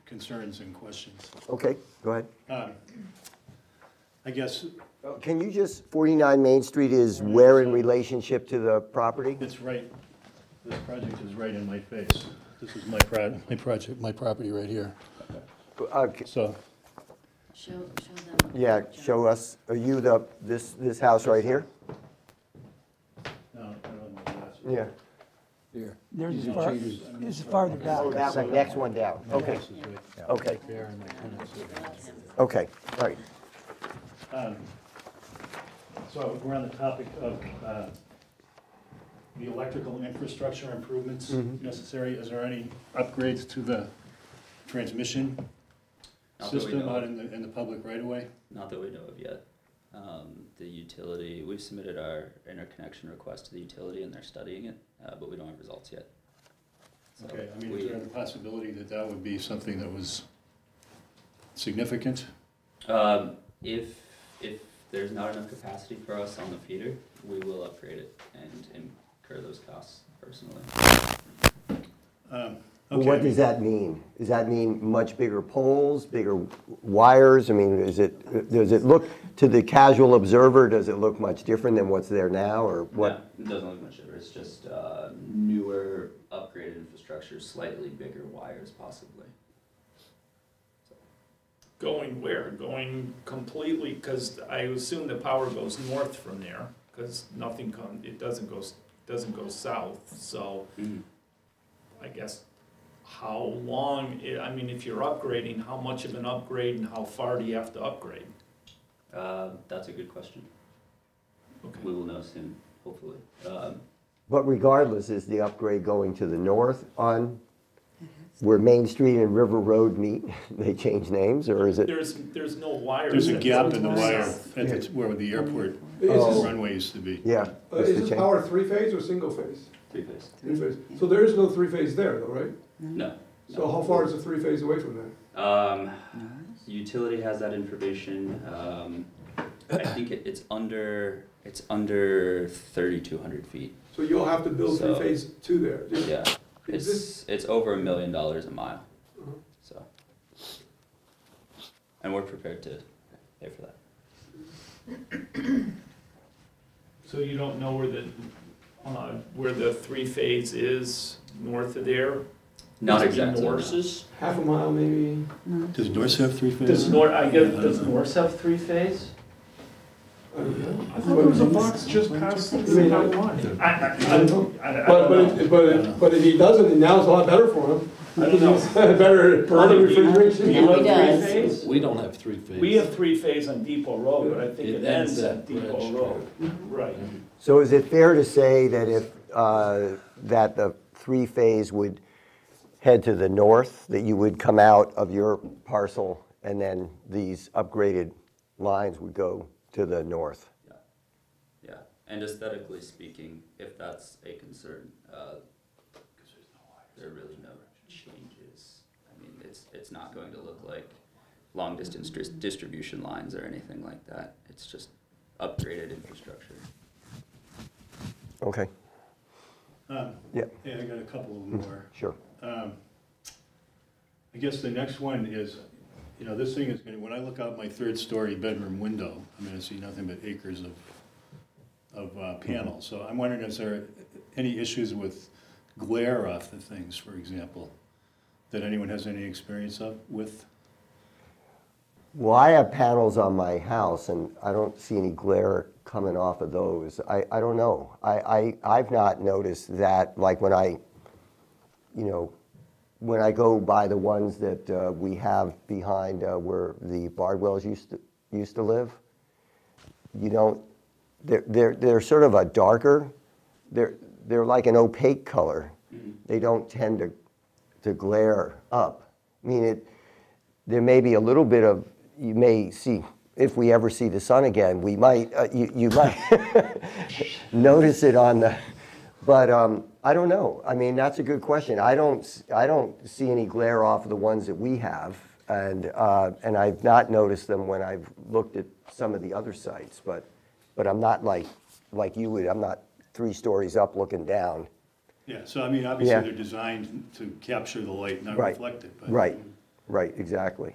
concerns and questions. Okay, go ahead. Um, I guess Can you just, 49 Main Street is where in relationship to the property? it's right, this project is right in my face. This is my pro, my project, my property right here. Uh, c- So Show, show them. Yeah, John. show us, are you the, this, this house right here? No, I don't know that's- Yeah. There's is far, this is farther Oh, back. that one, next one down. Okay, This is right okay, there and my tenants are there. okay, all right. So we're on the topic of uh, the electrical infrastructure improvements necessary. Is there any upgrades to the transmission Not that we system know out of. in the, in the public right away? Not that we know of yet. Um, the utility, we've submitted our interconnection request to the utility and they're studying it, uh, but we don't have results yet. So Okay, I mean, we- is there a possibility that that would be something that was significant? Um, if, if there's not enough capacity for us on the feeder, we will upgrade it and incur those costs personally. Well, What Okay. does that mean? Does that mean much bigger poles, bigger wires? I mean, is it, does it look, to the casual observer, does it look much different than what's there now, or what? No, it doesn't look much different, it's just, uh, newer, upgraded infrastructure, slightly bigger wires possibly. Going where? Going completely, because I assume the power goes north from there, because nothing come, it doesn't go, s- doesn't go south, so I guess how long, i- I mean, if you're upgrading, how much of an upgrade and how far do you have to upgrade? Uh, that's a good question, we Okay, will know soon, hopefully. Um, But regardless, is the upgrade going to the north on where Main Street and River Road meet? They change names, or is it? There's, there's no wires. There's a that gap goes in the north. wire at the, where the airport Oh. runway used to be. Yeah. Uh, it's the Is this change. power three-phase or single-phase? three-phase, Three-phase. So there is no three-phase there, though, right? no. So how far is the three-phase away from that? Um, utility has that information, um, I think it, it's under, it's under thirty-two hundred feet, So you'll have to build So- three-phase two there. Just- yeah. Is It's, it's over a million dollars a mile, Mhm. so. And we're prepared to pay for that. So you don't know where the, uh, where the three-phase is north of there? Not Must be exactly. no. Norse's? Half a mile, maybe? Does Dorset have three Does phases? Nor, I guess, does Norse have three-phase? I don't know. I thought there was a box just past the mean, I- town line. I, I, I don't know. I, I don't But, but, know. it- but, it- but if he doesn't, then now it's a lot better for him. I don't know. Better, better refrigeration. Yeah, we done. three-phase? We don't have three phases. We have three-phase on Depot Road, but I think It it ends ends at at Depot Bridge. Road. Right. So is it fair to say that if, uh, that the three-phase would head to the north, that you would come out of your parcel, and then these upgraded lines would go to the north? Yeah, yeah, and aesthetically speaking, if that's a concern, uh, there are really no changes. I mean, it's, it's not going to look like long distance dis- distribution lines or anything like that. It's just upgraded infrastructure. Okay, Um, yeah, Yeah, I got a couple of more. sure. Um, I guess the next one is, you know, this thing is, gonna when I look out my third-story bedroom window, I'm gonna see nothing but acres of, of uh, panels. So I'm wondering, is there any issues with glare off the things, for example, that anyone has any experience of, with? Well, I have panels on my house, and I don't see any glare coming off of those. I, I don't know. I, I, I've not noticed that, like when I, you know, when I go by the ones that uh, we have behind uh, where the Bardwells used to, used to live, you don't, they're, they're, they're sort of a darker, they're, they're like an opaque color. They don't tend to, to glare up. I mean, it, there may be a little bit of, you may see, if we ever see the sun again, we might, uh, you, you might notice it on the, but um, I don't know. I mean, that's a good question. I don't, s- I don't see any glare off of the ones that we have. And, uh, and I've not noticed them when I've looked at some of the other sites, but, but I'm not like, like you would, I'm not three stories up looking down. Yeah, so I mean, obviously, Yeah. they're designed to capture the light, not Right. reflect it, but. Right, Right, exactly.